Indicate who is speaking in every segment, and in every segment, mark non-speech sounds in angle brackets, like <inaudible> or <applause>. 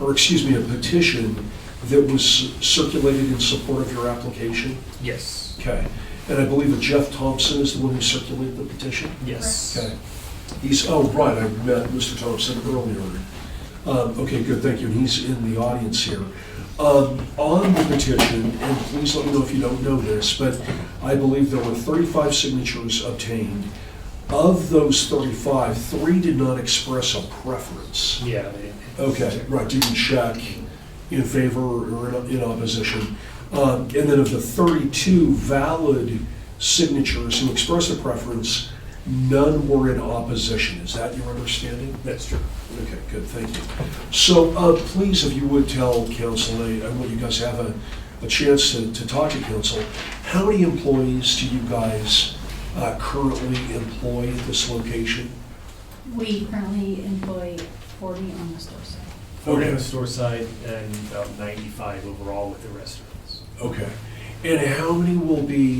Speaker 1: or excuse me, a petition that was circulated in support of your application?
Speaker 2: Yes,
Speaker 1: Okay. And I believe that Jeff Thompson is the one who circulated the petition?
Speaker 2: yes.
Speaker 1: Okay. He's, oh, right, I met Mr. Thompson earlier. Um, Okay, good, thank you, and he's in the audience here. Um, On the petition, and please let me know if you don't know this, but I believe there were 35 signatures obtained. Of those 35, three did not express a preference.
Speaker 2: Yeah. they-
Speaker 1: Okay, right, didn't check in favor or in- in opposition. Um, And then of the 32 valid signatures who expressed a preference, none were in opposition. Is that your understanding?
Speaker 2: That's true.
Speaker 1: Okay, good, thank you. So uh, please, if you would tell council, I I want you guys to have a a chance to to talk to council, how many employees do you guys uh, currently employ at this location?
Speaker 3: We currently employ 40 on the store side.
Speaker 2: Forty on the store side and about ninety-five overall with the restaurants.
Speaker 1: Okay. And how many will be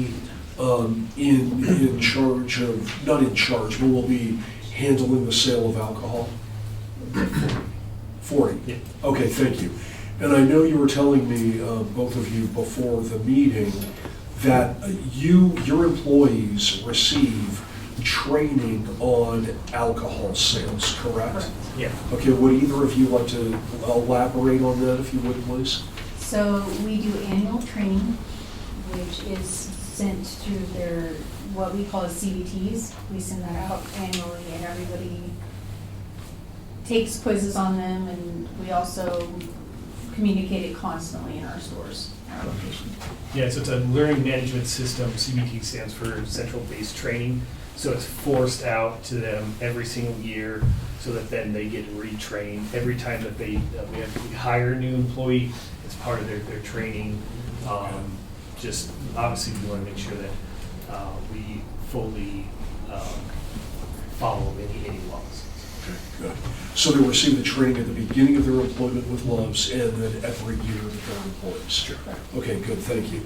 Speaker 1: um, in, in charge of, not in charge, but will be handling the sale of alcohol? 40?
Speaker 2: Yeah.
Speaker 1: Okay, thank you. And I know you were telling me, uh, both of you, before the meeting, that uh, you, your employees receive training on alcohol sales, correct?
Speaker 2: Yeah.
Speaker 1: Okay, would either of you like to elaborate on that, if you would, please?
Speaker 3: So we do annual training, which is sent through their, what we call CBTs. We send that out annually and everybody takes quizzes on them and we also communicate it constantly in our stores, our location.
Speaker 2: Yeah, so it's a learning management system, CBT stands for Central Based Training. So it's forced out to them every single year so that then they get retrained. Every time that they, that we have, we hire a new employee, it's part of their, their training. Um, Just, obviously, we want to make sure that uh, we fully um, follow any, any laws.
Speaker 1: Okay, good. So they receive the training at the beginning of their employment with Loves and then every year that they're employees? Okay, good, thank you.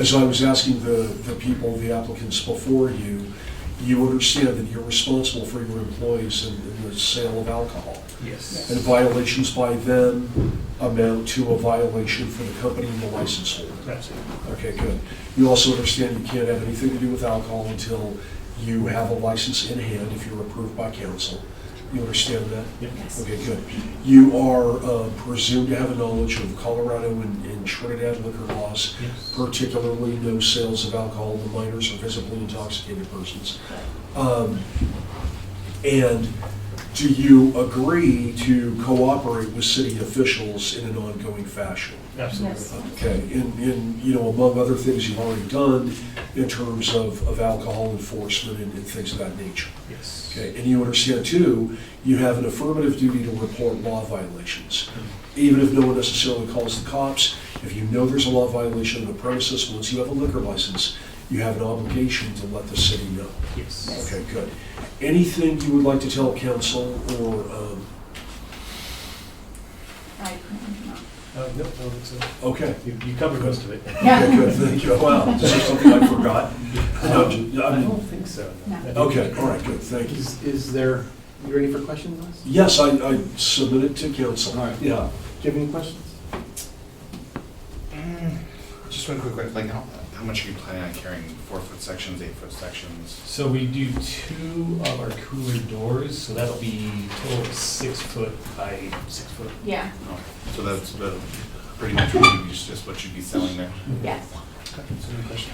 Speaker 1: As I was asking the, the people, the applicants before you, you understand that you're responsible for your employees and and the sale of alcohol.
Speaker 2: Yes.
Speaker 1: And violations by them amount to a violation for the company and the license holder.
Speaker 2: That's it.
Speaker 1: Okay, good. You also understand you can't have anything to do with alcohol until you have a license in hand if you're approved by council. You understand that?
Speaker 2: Yep.
Speaker 3: Yes.
Speaker 1: Okay, good. You are uh, presumed to have a knowledge of Colorado and and Trinidad liquor laws,
Speaker 2: Yes.
Speaker 1: particularly no sales of alcohol to minors or visibly intoxicated persons. Um, And do you agree to cooperate with city officials in an ongoing fashion?
Speaker 2: Absolutely.
Speaker 3: Yes.
Speaker 1: Okay, and, and, you know, among other things you've already done in terms of, of alcohol enforcement and and things of that nature.
Speaker 2: Yes.
Speaker 1: Okay, and you understand too, you have an affirmative duty to report law violations. Even if no one necessarily calls the cops, if you know there's a law violation on the premises, once you have a liquor license, you have an obligation to let the city know.
Speaker 2: Yes.
Speaker 1: Okay, good. Anything you would like to tell council or, um,
Speaker 3: I currently do not.
Speaker 2: Uh, no, no, it's, uh,
Speaker 1: okay.
Speaker 2: you you covered most of it. <laughs>
Speaker 1: Okay, good, thank you. Wow, this is something I forgot. Um,
Speaker 2: I
Speaker 1: I'm-
Speaker 2: don't think so.
Speaker 3: No.
Speaker 1: Okay, all right, good, thank you.
Speaker 4: Is, is there, you ready for questions, Les?
Speaker 1: Yes, I, I submitted to council.
Speaker 4: All right.
Speaker 1: Yeah,
Speaker 4: Do you have any questions?
Speaker 5: Mm, Just one quick, question, like, how, how much are you planning on carrying, four-foot sections, eight-foot sections?
Speaker 2: So we do two of our cooler doors, so that'll be total of six foot by six foot.
Speaker 3: Yeah,
Speaker 5: Oh, So that's the, pretty much what you, just what you'd be selling there?
Speaker 3: yes.
Speaker 5: Okay, so no question.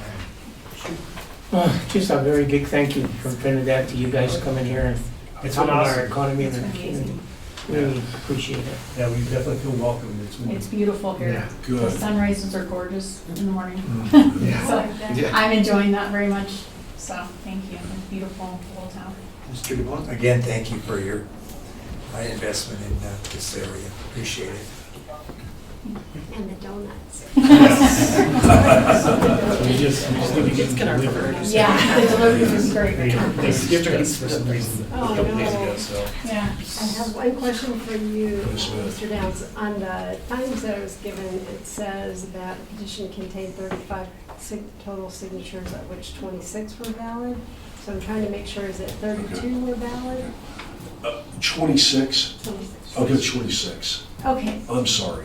Speaker 6: Well, Uh, Just a very big thank you from Trinidad to you guys coming here and
Speaker 2: It's been
Speaker 6: helping our
Speaker 2: awesome.
Speaker 6: economy and
Speaker 3: It's
Speaker 6: our
Speaker 3: been
Speaker 6: community.
Speaker 3: amazing.
Speaker 6: Really appreciate it.
Speaker 2: Yeah, we definitely feel welcome. It's
Speaker 1: mm.
Speaker 2: been-
Speaker 3: It's beautiful here.
Speaker 2: Yeah.
Speaker 3: The
Speaker 1: good.
Speaker 3: sunrises are gorgeous in the morning.
Speaker 7: Mm.
Speaker 2: Yeah.
Speaker 3: <laughs> So
Speaker 5: Yeah.
Speaker 3: I'm enjoying that very much, so thank you. It's beautiful little town.
Speaker 4: Mr.
Speaker 2: <laughs>
Speaker 4: DeBon?
Speaker 8: Again, thank you for your, my investment in uh, this area. Appreciate it.
Speaker 7: and the donuts.
Speaker 2: We just, we just need to get.
Speaker 9: Kids can order
Speaker 2: delivered.
Speaker 9: burgers.
Speaker 3: <laughs> Yeah, the delivery was
Speaker 2: They
Speaker 3: great.
Speaker 2: they skipped us for some reason a
Speaker 7: Oh,
Speaker 2: couple days
Speaker 7: no.
Speaker 2: ago, so.
Speaker 3: Yeah.
Speaker 7: I have one question for you,
Speaker 1: Yes, ma'am.
Speaker 7: Mr. Downs. On the times that it was given, it says that the petition contained 35 sig- total signatures, of which 26 were valid. So I'm trying to make sure, is it 32 were valid?
Speaker 1: Uh, 26? I'll go 26.
Speaker 7: Okay.
Speaker 1: I'm sorry.